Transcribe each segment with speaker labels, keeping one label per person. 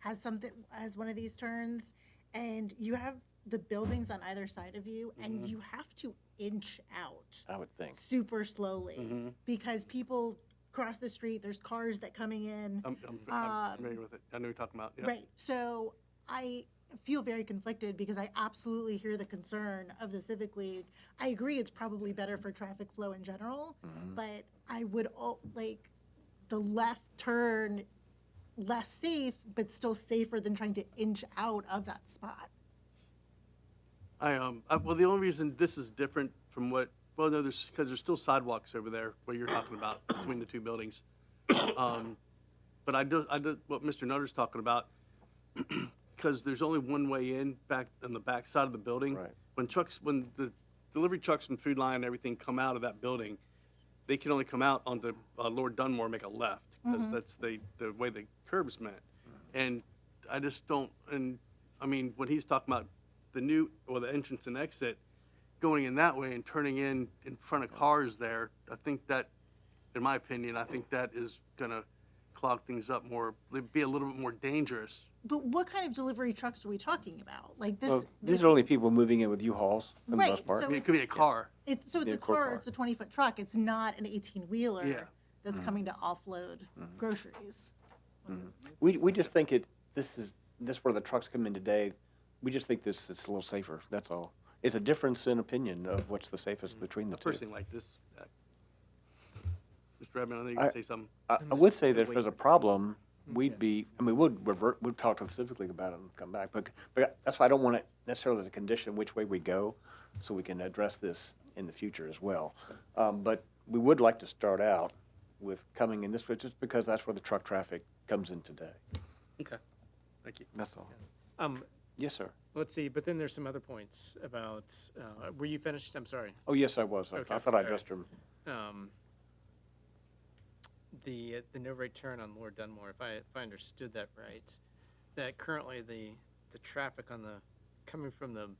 Speaker 1: has something, has one of these turns, and you have the buildings on either side of you, and you have to inch out
Speaker 2: I would think.
Speaker 1: super slowly because people cross the street, there's cars that coming in.
Speaker 3: I'm, I'm, I'm familiar with it. I know you're talking about. yeah.
Speaker 1: Right. So I feel very conflicted because I absolutely hear the concern of the Civic League. I agree it's probably better for traffic flow in general,
Speaker 2: Mm-hmm.
Speaker 1: but I would all, like the left turn less safe, but still safer than trying to inch out of that spot.
Speaker 3: I, um, I, well, the only reason this is different from what, well, no, there's, because there's still sidewalks over there where you're talking about between the two buildings. Um, But I do, I do, what Mr. Nutter's talking about, because there's only one way in back, on the back side of the building.
Speaker 2: Right.
Speaker 3: When trucks, when the delivery trucks and food line and everything come out of that building, they can only come out onto uh, Lord Dunmore, and make a left, because that's the, the way the curb's meant. And I just don't, and, I mean, when he's talking about the new, or the entrance and exit, going in that way and turning in in front of cars there, I think that, in my opinion, I think that is gonna clog things up more, it'd be a little bit more dangerous.
Speaker 1: But what kind of delivery trucks are we talking about? Like this,
Speaker 2: Well, these are only people moving in with U-Hauls for the
Speaker 1: Right,
Speaker 2: most part.
Speaker 3: I
Speaker 1: so-
Speaker 3: mean, it could be a car.
Speaker 1: it's, so it's
Speaker 2: Yeah,
Speaker 1: a
Speaker 2: core
Speaker 1: car,
Speaker 2: car.
Speaker 1: it's a 20 foot truck. It's not an 18 wheeler
Speaker 3: Yeah.
Speaker 1: that's
Speaker 2: Mm-hmm.
Speaker 1: coming to offload groceries.
Speaker 2: We, we just think it, this is, this is where the trucks come in today. We just think this is a little safer, that's all. It's a difference in opinion of what's the safest between the
Speaker 3: I
Speaker 2: two.
Speaker 3: personally like this. uh, Mr. Redmond, I know you can
Speaker 2: I-
Speaker 3: say something.
Speaker 2: I, I would say that if there's a problem, we'd be, I mean, we'd revert, we'd talk to the Civic League about it and come back. But, but that's why I don't want it necessarily as a condition which way we go, so we can address this in the future as well. Um, but we would like to start out with coming in this way, just because that's where the truck traffic comes in today.
Speaker 4: Okay.
Speaker 3: Thank you.
Speaker 2: That's all.
Speaker 4: Um,
Speaker 2: Yes, sir.
Speaker 4: let's see, but then there's some other points about, uh, were you finished? I'm sorry.
Speaker 2: Oh, yes, I was. I-
Speaker 4: Okay,
Speaker 2: I thought I
Speaker 4: all right.
Speaker 2: addressed him.
Speaker 4: Um, the, uh, the no right turn on Lord Dunmore, if I, if I understood that right, that currently the, the traffic on the, coming from the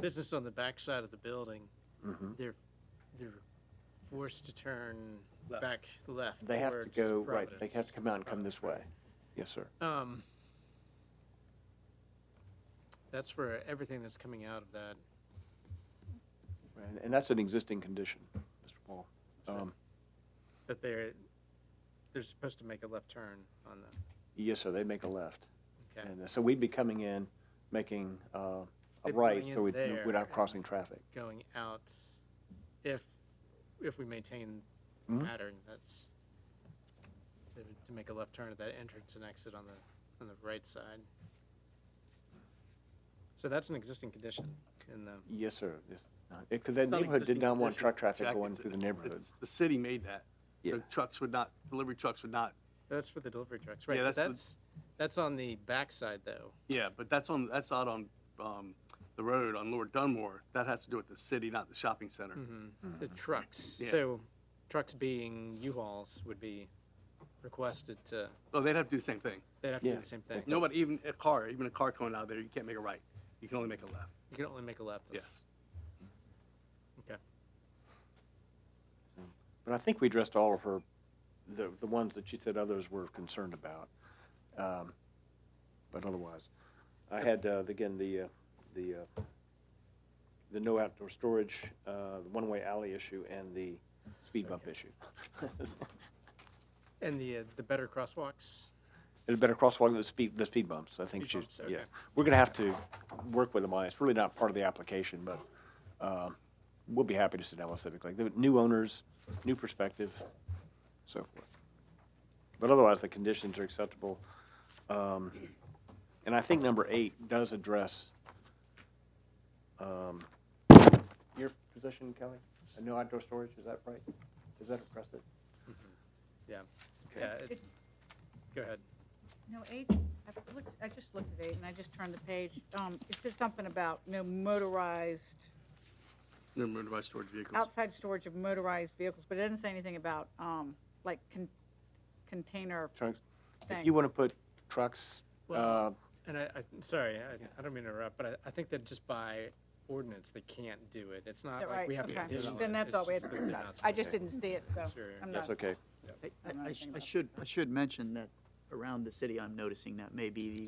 Speaker 4: business on the backside of the building,
Speaker 2: Mhm.
Speaker 4: they're, they're forced to turn
Speaker 3: Left.
Speaker 4: back left
Speaker 2: They have to
Speaker 4: towards
Speaker 2: go, right, they have
Speaker 4: Providence.
Speaker 2: to come out and come this way. Yes, sir.
Speaker 4: Um, that's where everything that's coming out of that
Speaker 2: And- And that's an existing condition, Mr. Paul. Um,
Speaker 4: that they're they're supposed to make a left turn on the
Speaker 2: Yes, sir, they make a left.
Speaker 4: okay.
Speaker 2: And uh, so we'd be coming in, making uh, a
Speaker 4: They'd be
Speaker 2: right,
Speaker 4: going in
Speaker 2: so we'd-
Speaker 4: there
Speaker 2: without
Speaker 4: and-
Speaker 2: crossing traffic.
Speaker 4: going out if if we maintain
Speaker 2: Mhm.
Speaker 4: pattern that's to, to make a left turn at that entrance and exit on the on the right side. So that's an existing condition in the
Speaker 2: Yes, sir. yes. Uh, it- 'cause the
Speaker 3: It's not
Speaker 2: neighborhood did
Speaker 3: existing
Speaker 2: not want
Speaker 3: condition,
Speaker 2: truck traffic
Speaker 3: Jack,
Speaker 2: going
Speaker 3: it's-
Speaker 2: through the neighborhood.
Speaker 3: it's- The city made that.
Speaker 2: Yeah.
Speaker 3: The trucks would not, delivery trucks would not,
Speaker 4: that's for the delivery trucks, right?
Speaker 3: Yeah,
Speaker 4: but
Speaker 3: that's the-
Speaker 4: that's that's on the backside though.
Speaker 3: yeah, but that's on, that's out on, um, the road on Lord Dunmore. That has to do with the city, not the shopping center.
Speaker 4: Mm-hmm. The trucks.
Speaker 3: Yeah.
Speaker 4: So trucks being U-Hauls would be requested to
Speaker 3: Oh, they'd have to do the same thing.
Speaker 4: they'd have to
Speaker 2: Yeah.
Speaker 4: do the same thing.
Speaker 3: Nobody, even a car, even a car coming out of there, you can't make a right. You can only make a left.
Speaker 4: You can only make a left. on
Speaker 3: Yes.
Speaker 4: Okay.
Speaker 2: But I think we addressed all of her, the, the ones that she said others were concerned about. Um, But otherwise, I had, uh, again, the, uh, the, uh, the no outdoor storage, uh, the one-way alley issue, and the speed bump issue.
Speaker 4: And the, uh, the better crosswalks?
Speaker 2: It's better crosswalk than the speed, the speed bumps, I think
Speaker 4: Speed
Speaker 2: she's,
Speaker 4: bumps,
Speaker 2: yeah.
Speaker 4: okay.
Speaker 2: We're gonna have to work with them on it. It's really not part of the application, but, um, we'll be happy to sit down with Civic Link. The New owners, new perspective, so forth. But otherwise, the conditions are acceptable. Um, and I think number eight does address, um, your position, Kelly? A No outdoor storage, is that right? Is that impressive?
Speaker 4: Yeah.
Speaker 2: Okay.
Speaker 4: Yeah, it- Go ahead.
Speaker 5: No, eight, I looked, I just looked at eight and I just turned the page. Um, it said something about no motorized,
Speaker 3: No motorized storage vehicles.
Speaker 5: outside storage of motorized vehicles, but it doesn't say anything about, um, like con- container.
Speaker 2: Trunks, if
Speaker 5: Thanks.
Speaker 2: you wanna put trucks,
Speaker 4: Well,
Speaker 2: uh,
Speaker 4: And I, I, sorry, I, I don't mean to interrupt, but I, I think that just by ordinance, they can't do it. It's
Speaker 5: Is
Speaker 4: not
Speaker 5: that
Speaker 4: like
Speaker 5: right?
Speaker 4: we have
Speaker 5: Okay.
Speaker 4: conditions.
Speaker 5: Then that's all we had to
Speaker 4: do.
Speaker 5: I just didn't see it, so
Speaker 4: Sure.
Speaker 5: I'm not.
Speaker 2: that's okay.
Speaker 6: I-
Speaker 5: I'm not
Speaker 6: I- I
Speaker 5: thinking
Speaker 6: sh- I
Speaker 5: about-
Speaker 6: should, I should mention that around the city, I'm noticing that maybe the